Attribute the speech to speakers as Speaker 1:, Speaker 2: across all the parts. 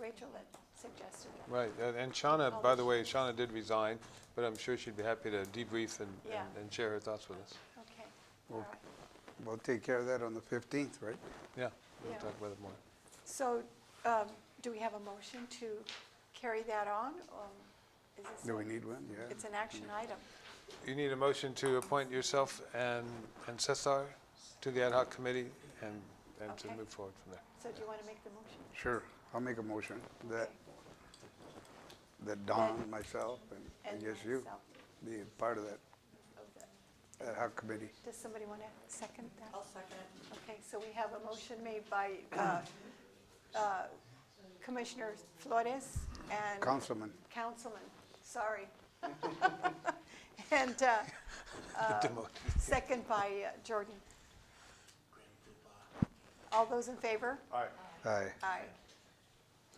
Speaker 1: Rachel that suggested that.
Speaker 2: Right, and- and
Speaker 1: Oh,
Speaker 2: Shauna, by the way, Shauna did resign, but I'm sure she'd be happy to debrief and,
Speaker 1: Yeah.
Speaker 2: and- and share her thoughts with us.
Speaker 1: Okay, all
Speaker 3: Well-
Speaker 1: right.
Speaker 3: We'll take care of that on the 15th, right?
Speaker 2: Yeah, we'll
Speaker 1: Yeah.
Speaker 2: talk about it more.
Speaker 1: So um, do we have a motion to carry that on? or is this
Speaker 3: Do we
Speaker 1: a-
Speaker 3: need one? Yeah.
Speaker 1: It's an action item.
Speaker 2: You need a motion to appoint yourself and, and Cesar to the ad hoc committee and, and to
Speaker 1: Okay.
Speaker 2: move forward from there.
Speaker 1: So do you want to make the motion?
Speaker 3: Sure. I'll make a motion that,
Speaker 1: Okay.
Speaker 3: that Don, myself, and
Speaker 1: And
Speaker 3: I guess you
Speaker 1: myself.
Speaker 3: be part of that
Speaker 1: Okay.
Speaker 3: ad hoc committee.
Speaker 1: Oh, Does somebody want to second that?
Speaker 4: I'll second.
Speaker 1: Okay, so we have a motion made by uh, uh, Commissioner Flores and.
Speaker 3: Councilman,
Speaker 1: Councilman, sorry. And uh, uh,
Speaker 2: Demoted.
Speaker 1: second by uh, Jordan. All those in favor?
Speaker 3: aye.
Speaker 1: Aye.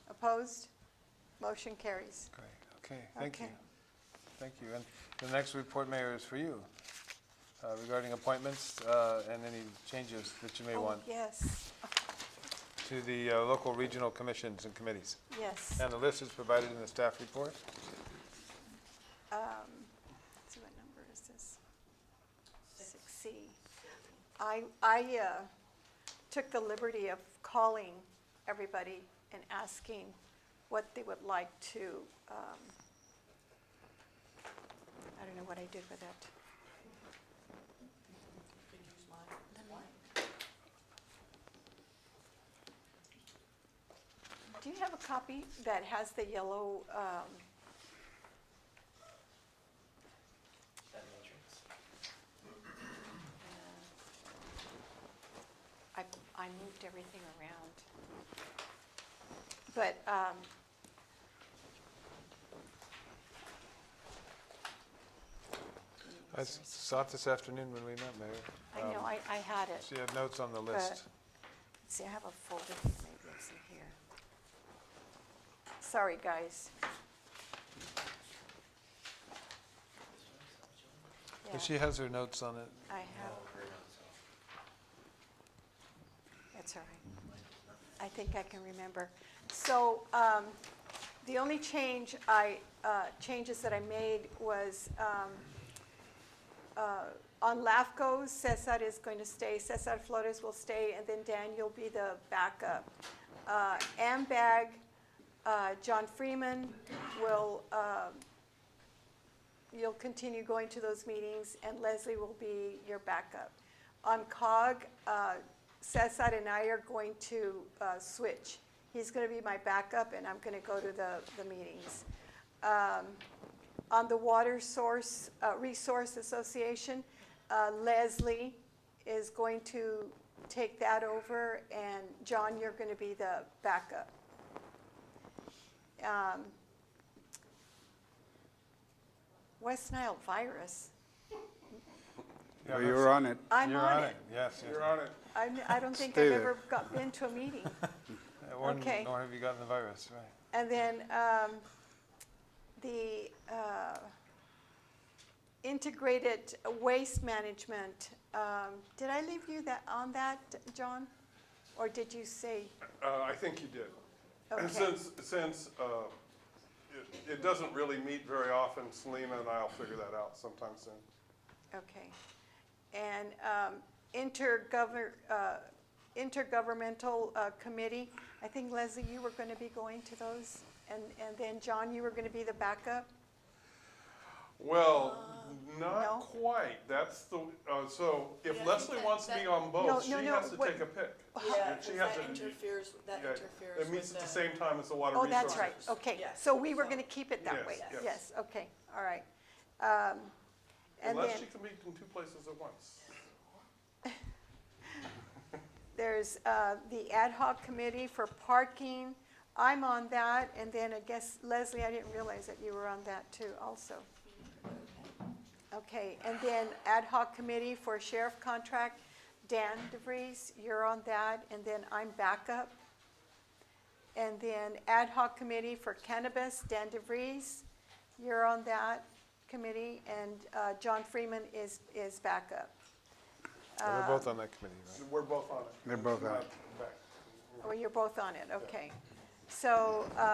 Speaker 1: Opposed? Motion carries.
Speaker 2: Great, okay, thank you.
Speaker 1: Okay.
Speaker 2: Thank you. And the next report, Mayor, is for you uh, regarding appointments uh, and any changes that you may
Speaker 1: Oh,
Speaker 2: want
Speaker 1: Yes,
Speaker 2: to the uh, local regional commissions and committees.
Speaker 1: yes.
Speaker 2: And the list is provided in the staff report.
Speaker 1: um, let's see, what number is this? Six C. I, I, uh, took the liberty of calling everybody and asking what they would like to, um, I don't know what I did with it.
Speaker 4: Could use mine.
Speaker 1: Do you have a copy that has the yellow, um,
Speaker 5: That matrix.
Speaker 1: I, I moved everything around. But, um,
Speaker 2: I s- saw it this afternoon when we met, Mayor.
Speaker 1: I Uh, know,
Speaker 2: Um,
Speaker 1: I, I had it.
Speaker 2: She had notes on the list.
Speaker 1: See, I have a folder here, maybe it's in here. Sorry, guys.
Speaker 2: Well,
Speaker 1: Yeah,
Speaker 2: She has her notes on it.
Speaker 1: I have,
Speaker 5: Or not, so.
Speaker 1: that's all right. I think I can remember. So um, the only change I, uh, changes that I made was um, uh, on LAFCO, Cesar is going to stay, Cesar Flores will stay, and then Dan, you'll be the backup. Uh, AMBAG, uh, John Freeman will, um, you'll continue going to those meetings, and Leslie will be your backup. On COG, uh, Cesar and I are going to uh, switch. He's going to be my backup, and I'm going to go to the, the meetings. Um, on the Water Source, uh, Resource Association. Uh, Leslie is going to take that over, and John, you're going to be the backup. Um, West Nile virus.
Speaker 2: Yeah,
Speaker 3: Well, You're
Speaker 2: that's-
Speaker 3: on it.
Speaker 1: I'm
Speaker 2: You're on
Speaker 1: on
Speaker 2: it,
Speaker 1: it.
Speaker 2: yes. You're on it.
Speaker 1: I'm- I don't think
Speaker 3: Stay
Speaker 1: I've
Speaker 3: there.
Speaker 1: ever got, been to a meeting. Okay.
Speaker 2: Nor have you gotten the virus, right.
Speaker 1: And then um, the uh, integrated waste management, um, did I leave you that, on that, John? Or did you say,
Speaker 6: Uh, I think you did.
Speaker 1: Okay.
Speaker 6: And since, since, uh, it, it doesn't really meet very often, Selena and I'll figure that out sometime soon.
Speaker 1: okay. And um, intergover- uh, intergovernmental uh, committee, I think Leslie, you were going to be going to those? And, and then John, you were going to be the backup?
Speaker 6: Well,
Speaker 1: Uh, no.
Speaker 6: not quite, that's the, uh, so if
Speaker 4: Yeah,
Speaker 6: Leslie
Speaker 4: that-
Speaker 6: wants to be
Speaker 4: that-
Speaker 6: on both, she
Speaker 1: No, no, no,
Speaker 6: has to
Speaker 1: what-
Speaker 6: take a pick.
Speaker 4: Yeah,
Speaker 6: She
Speaker 4: because
Speaker 6: has
Speaker 4: that
Speaker 6: to-
Speaker 4: interferes, that
Speaker 6: Yeah,
Speaker 4: interferes
Speaker 6: It meets
Speaker 4: with
Speaker 6: at the
Speaker 4: the.
Speaker 6: same time as the water
Speaker 1: Oh,
Speaker 6: resources.
Speaker 1: that's right, okay.
Speaker 4: Yes.
Speaker 1: So we were
Speaker 4: So-
Speaker 1: going to keep it that
Speaker 6: Yes,
Speaker 1: way?
Speaker 6: yes.
Speaker 1: Yes, okay, all right. Um, And then
Speaker 6: Unless she can meet in two places at once.
Speaker 1: there's uh, the ad hoc committee for parking. I'm on that, and then I guess Leslie, I didn't realize that you were on that too also. Okay, and then ad hoc committee for sheriff contract, Dan DeVries, you're on that, and then I'm backup. And then ad hoc committee for cannabis, Dan DeVries, you're on that committee, and uh, John Freeman is, is backup. Uh,
Speaker 2: And We're both on that committee, right?
Speaker 6: We're both on it.
Speaker 3: They're both on it.
Speaker 1: Oh,
Speaker 6: Not back.
Speaker 1: Well, you're both on it, okay. So, uh,